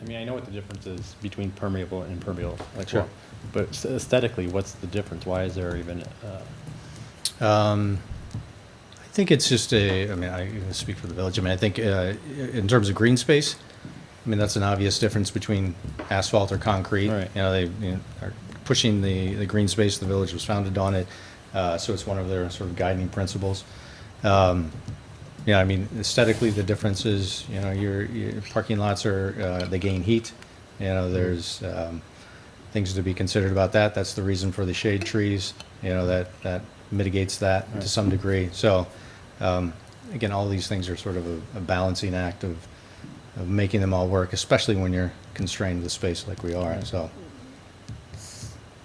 I mean, I know what the difference is between permeable and impermeable, like, Sure. well, but aesthetically, what's the difference? Why is there even, uh, Um, I think it's just a, I mean, I can speak for the village, I mean, I think uh, in terms of green space, I mean, that's an obvious difference between asphalt or concrete. Right. You know, they you know, are pushing the, the green space, the village was founded on it, uh, so it's one of their sort of guiding principles. Um, Yeah, I mean, aesthetically, the difference is, you know, your, your parking lots are, uh, they gain heat, you know, there's um, things to be considered about that. That's the reason for the shade trees, you know, that, that mitigates that to some degree. So, um, again, all these things are sort of a a balancing act of, of making them all work, especially when you're constrained with space like we are, so.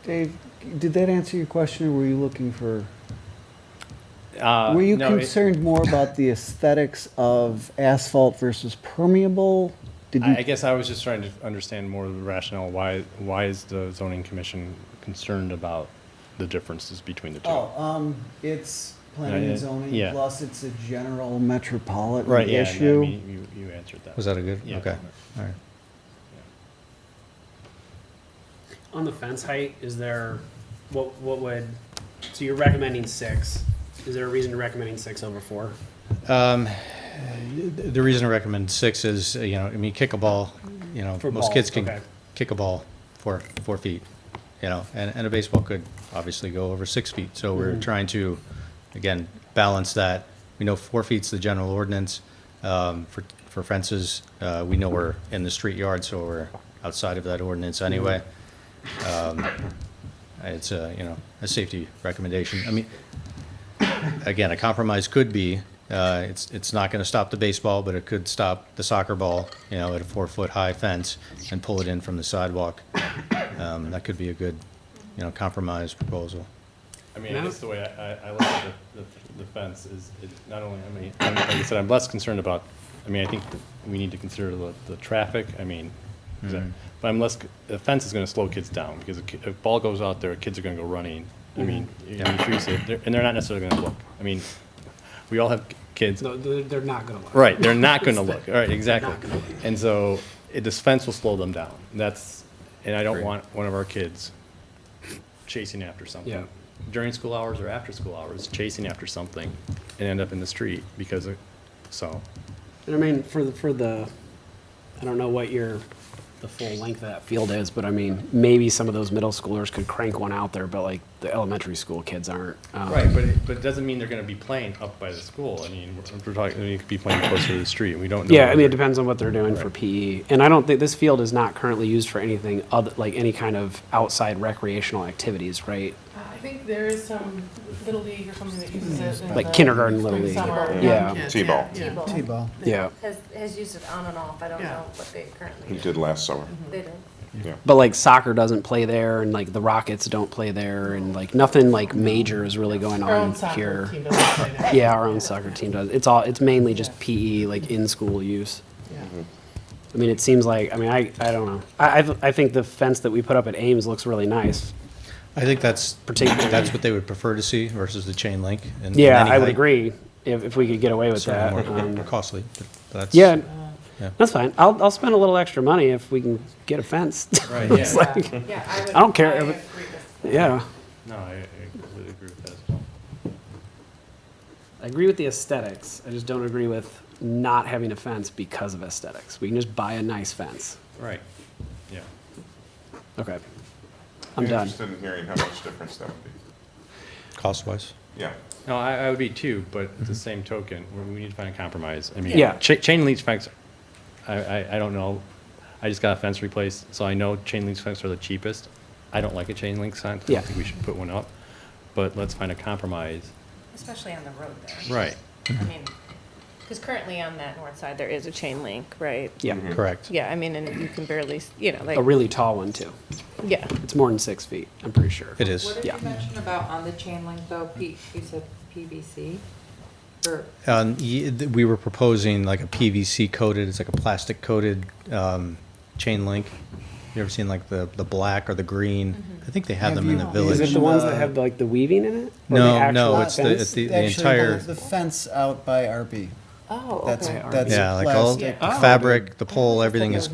Dave, did that answer your question, or were you looking for? uh, Were you no, it- concerned more about the aesthetics of asphalt versus permeable? Did I I you, guess I was just trying to understand more of the rationale, why, why is the zoning commission concerned about the differences between the two? oh, um, it's planning Yeah, yeah, and zoning, yeah. plus it's a general metropolitan Right, yeah, and I issue. mean, you, you answered that. Was that a good? Yeah. Okay, all right. On the fence height, is there, what, what would, so you're recommending six. Is there a reason to recommending six over four? The reason I recommend six is, uh, you know, I mean, kick a ball, you know, For most ball, kids can okay. kick a ball four, four feet, you know, and, and a baseball could obviously go over six feet. So we're Mm-hmm. trying to, again, balance that. We know four feet's the general ordinance um, for, for fences. Uh, We know we're in the street yard, so we're outside of that ordinance anyway. Mm-hmm. Um, It's a, you know, a safety recommendation. I mean, again, a compromise could be, uh, it's, it's not going to stop the baseball, but it could stop the soccer ball, you know, at a four-foot-high fence and pull it in from the sidewalk. Um, That could be a good, you know, compromise proposal. I mean, No. that's the way I, I- I look at the, the- the fence is, it not only, I mean, I'm- like I said, I'm less concerned about, I mean, I think that we need to consider the, the traffic, I mean, is that- but I'm less, c- the fence is gonna slow kids down, because a ki- if ball goes out there, kids are gonna go running. I mean, you know, you treat it- they're- and they're not necessarily gonna look. I mean, we all have k- kids, No, they're, they're not gonna look. Right, they're not going to look. All right, exactly. not gonna look. And so it, this fence will slow them down. That's, and I don't Agreed. want one of our kids chasing after Yeah. something during school hours or after school hours, chasing after something and end up in the street because of, so. And I mean, for the, for the, I don't know what your, the full length of that field is, but I mean, maybe some of those middle schoolers could crank one out there, but like the elementary school kids aren't. Um, Right, but it, but it doesn't mean they're going to be playing up by the school. I mean, we're- we're talking, they could be playing closer to the street. We don't know. Yeah, I mean, it whether- depends on what they're doing for PE. And I don't think, this field is not currently used for anything other, like any kind of outside recreational activities, right? I think there is some Little League or something that uses it. in Like the kindergarten, Little Uh, League. spring, summer, Yeah. young Yeah. kids, T-ball. yeah, yeah. T-ball. Yeah. Has, has used it on and off, I don't Yeah. know what they currently He do. did last summer. They do. Yeah. but like soccer doesn't play there and like the rockets don't play there and like nothing like major is really going Our own on soccer here team doesn't play that. yeah our own soccer team does it's all it's mainly just pe like in school use Yeah. i mean it seems like i mean i i don't know i I've- i think the fence that we put up at ames looks really nice I think that's, Particularly- that's what they would prefer to see versus the chain link. and- and yeah any i would height. agree if, if we could get away with that Certainly more- um, more costly, but that's. yeah Yeah. that's fine I'll, I'll spend a little extra money if we can get a fence Right, It's Yeah. like- Yeah, I would. I don't care I if it- agree with- yeah No, I I completely agree with that as well. I agree with the aesthetics. I just don't agree with not having a fence because of aesthetics. We can just buy a nice fence. Right, yeah. Okay. I'm done. interested in hearing how much difference that would be. Cost-wise. Yeah. No, I, I would be too, but at the same token, we, we need to find a compromise. I mean, Mm-hmm. Yeah. cha- chain link fence, I, I, I don't know. I just got a fence replaced, so I know chain link fences are the cheapest. I don't like a chain link fence. I Yeah. don't think we should put one up, but let's find a compromise. Especially on the road there. Right. I mean, because currently on that north side, there is a chain link, right? Yeah. Correct. Yeah, I mean, and you can barely, s- you know, like, A really tall one, too. yeah. It's more than six feet, I'm pretty sure. It is. What did Yeah. you mention about on the chain link though, P, you said PVC? Or, Um, y- th- We were proposing like a PVC coated, it's like a plastic coated um, chain link. You ever seen like the, the black or the green? I think they have them in the Have you- Is village. it the ones that have like the weaving in it? Or No, Oh, the actual no, it's the- fence? it's the- entire- The fence out by RB. Oh, That's, okay. that's Yeah, like all plastic. the fabric, the pole, everything is